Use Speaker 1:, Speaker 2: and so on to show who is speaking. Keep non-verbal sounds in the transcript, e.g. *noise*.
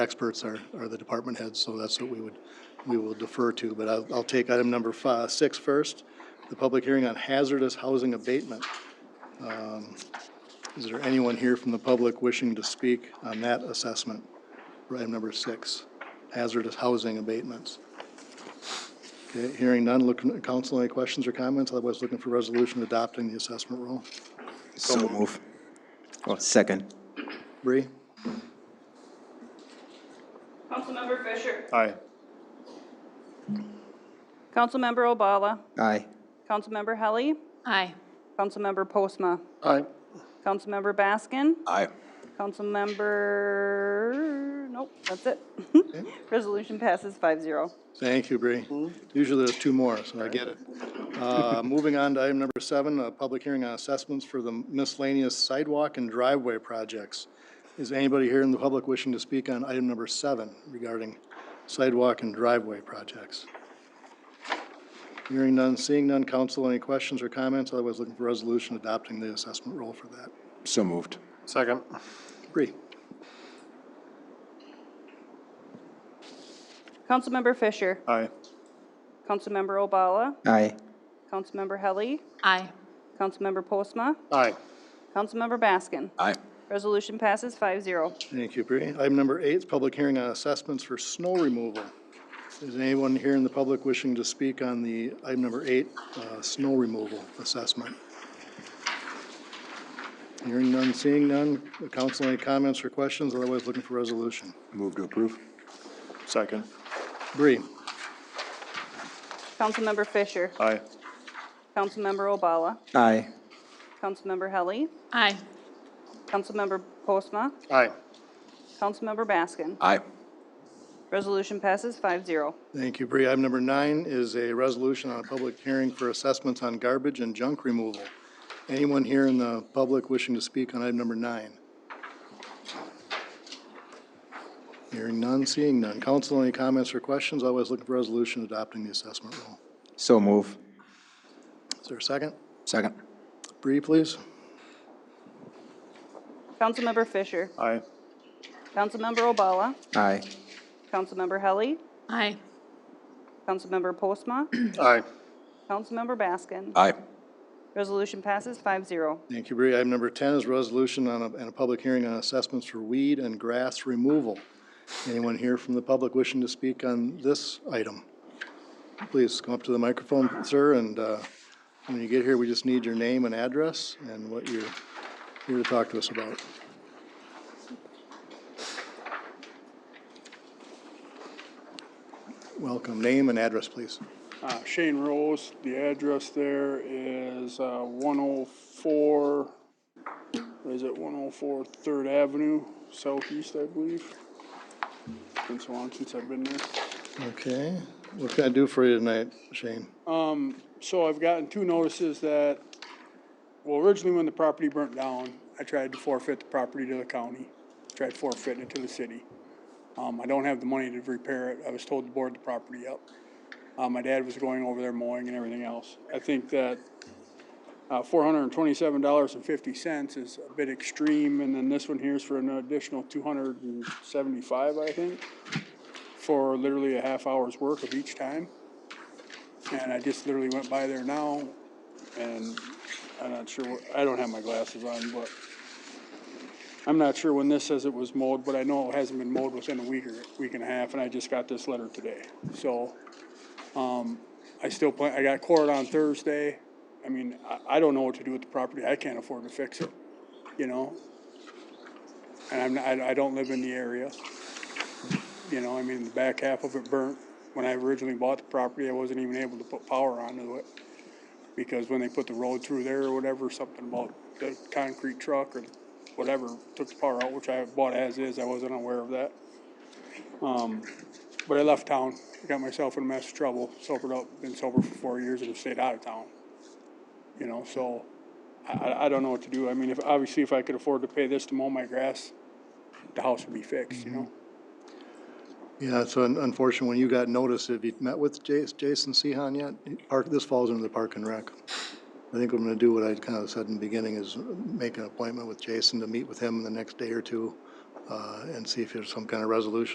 Speaker 1: experts are, are the department heads, so that's what we would, we will defer to. But I'll, I'll take item number fi- six first, the public hearing on hazardous housing abatement. Um, Is there anyone here from the public wishing to speak on that assessment? For item number six, hazardous housing abatements. Okay, hearing none, looking, council, any questions or comments? Otherwise, looking for resolution adopting the assessment rule.
Speaker 2: So move. Oh, second.
Speaker 1: Bree?
Speaker 3: Councilmember Fisher.
Speaker 1: Aye.
Speaker 3: Councilmember Obala.
Speaker 2: Aye.
Speaker 3: Councilmember Helly.
Speaker 4: Aye.
Speaker 3: Councilmember Postma.
Speaker 1: Aye.
Speaker 3: Councilmember Baskin.
Speaker 2: Aye.
Speaker 3: Councilmember, nope, that's it. *laughs* Resolution passes five zero.
Speaker 1: Thank you, Bree. Usually there's two more, so I get it. Uh, Moving on to item number seven, a public hearing on assessments for the miscellaneous sidewalk and driveway projects. Is anybody here in the public wishing to speak on item number seven regarding sidewalk and driveway projects? Hearing none, seeing none, council, any questions or comments? Otherwise, looking for resolution adopting the assessment rule for that.
Speaker 2: So moved.
Speaker 5: Second.
Speaker 1: Bree?
Speaker 3: Councilmember Fisher.
Speaker 5: Aye.
Speaker 3: Councilmember Obala.
Speaker 2: Aye.
Speaker 3: Councilmember Helly.
Speaker 4: Aye.
Speaker 3: Councilmember Postma.
Speaker 5: Aye.
Speaker 3: Councilmember Baskin.
Speaker 2: Aye.
Speaker 3: Resolution passes five zero.
Speaker 1: Thank you, Bree. Item number eight is public hearing on assessments for snow removal. Is anyone here in the public wishing to speak on the item number eight, uh, snow removal assessment? Hearing none, seeing none. Council, any comments or questions? Otherwise, looking for resolution.
Speaker 2: Move to approve.
Speaker 5: Second.
Speaker 1: Bree?
Speaker 3: Councilmember Fisher.
Speaker 5: Aye.
Speaker 3: Councilmember Obala.
Speaker 2: Aye.
Speaker 3: Councilmember Helly.
Speaker 4: Aye.
Speaker 3: Councilmember Postma.
Speaker 5: Aye.
Speaker 3: Councilmember Baskin.
Speaker 2: Aye.
Speaker 3: Resolution passes five zero.
Speaker 1: Thank you, Bree. Item number nine is a resolution on a public hearing for assessments on garbage and junk removal. Anyone here in the public wishing to speak on item number nine? Hearing none, seeing none. Council, any comments or questions? Always looking for resolution adopting the assessment rule.
Speaker 2: So move.
Speaker 1: Is there a second?
Speaker 2: Second.
Speaker 1: Bree, please.
Speaker 3: Councilmember Fisher.
Speaker 5: Aye.
Speaker 3: Councilmember Obala.
Speaker 2: Aye.
Speaker 3: Councilmember Helly.
Speaker 4: Aye.
Speaker 3: Councilmember Postma.
Speaker 5: Aye.
Speaker 3: Councilmember Baskin.
Speaker 2: Aye.
Speaker 3: Resolution passes five zero.
Speaker 1: Thank you, Bree. Item number 10 is resolution on a, and a public hearing on assessments for weed and grass removal. Anyone here from the public wishing to speak on this item? Please come up to the microphone, sir, and uh, when you get here, we just need your name and address and what you're here to talk to us about. Welcome. Name and address, please.
Speaker 6: Uh, Shane Rose, the address there is uh, 104, what is it 104 Third Avenue Southeast, I believe. Been so long since I've been there.
Speaker 1: Okay. What can I do for you tonight, Shane?
Speaker 6: So I've gotten two notices that, well, originally when the property burnt down, I tried to forfeit the property to the county, tried forfeiting it to the city. Um, I don't have the money to repair it. I was told to board the property up. Uh, my dad was going over there mowing and everything else. I think that, uh, four hundred and twenty-seven dollars and fifty cents is a bit extreme, and then this one here is for an additional two hundred and seventy-five, I think, for literally a half hour's work of each time. And I just literally went by there now, and I'm not sure, what- I don't have my glasses on, but I'm not sure when this says it was mowed, but I know it hasn't been mowed within a week or, week and a half, and I just got this letter today. So, um, I still plan, I got court on Thursday. I mean, I, I don't know what to do with the property. I can't afford to fix it, you know? And I'm, not- I, I don't live in the area. You know, I mean, the back half of it burnt. When I originally bought the property, I wasn't even able to put power onto it. Because when they put the road through there or whatever, something about the concrete truck or whatever took the power out, which I bought as is, I wasn't aware of that. Um, but I left town, got myself in a mess of trouble, sobered up, been sober for four years and have stayed out of town. You know, so I, I, I don't know what to do. I mean, if, obviously if I could afford to pay this to mow my grass, the house would be fixed, you know?
Speaker 1: Yeah, so un- unfortunately, when you got notice, have you met with Jas- Jason Sehan yet? Park, this falls into the Park and Rec. I think I'm gonna do what I kind of said in the beginning, is make an appointment with Jason to meet with him in the next day or two, uh, and see if there's some kind of resolution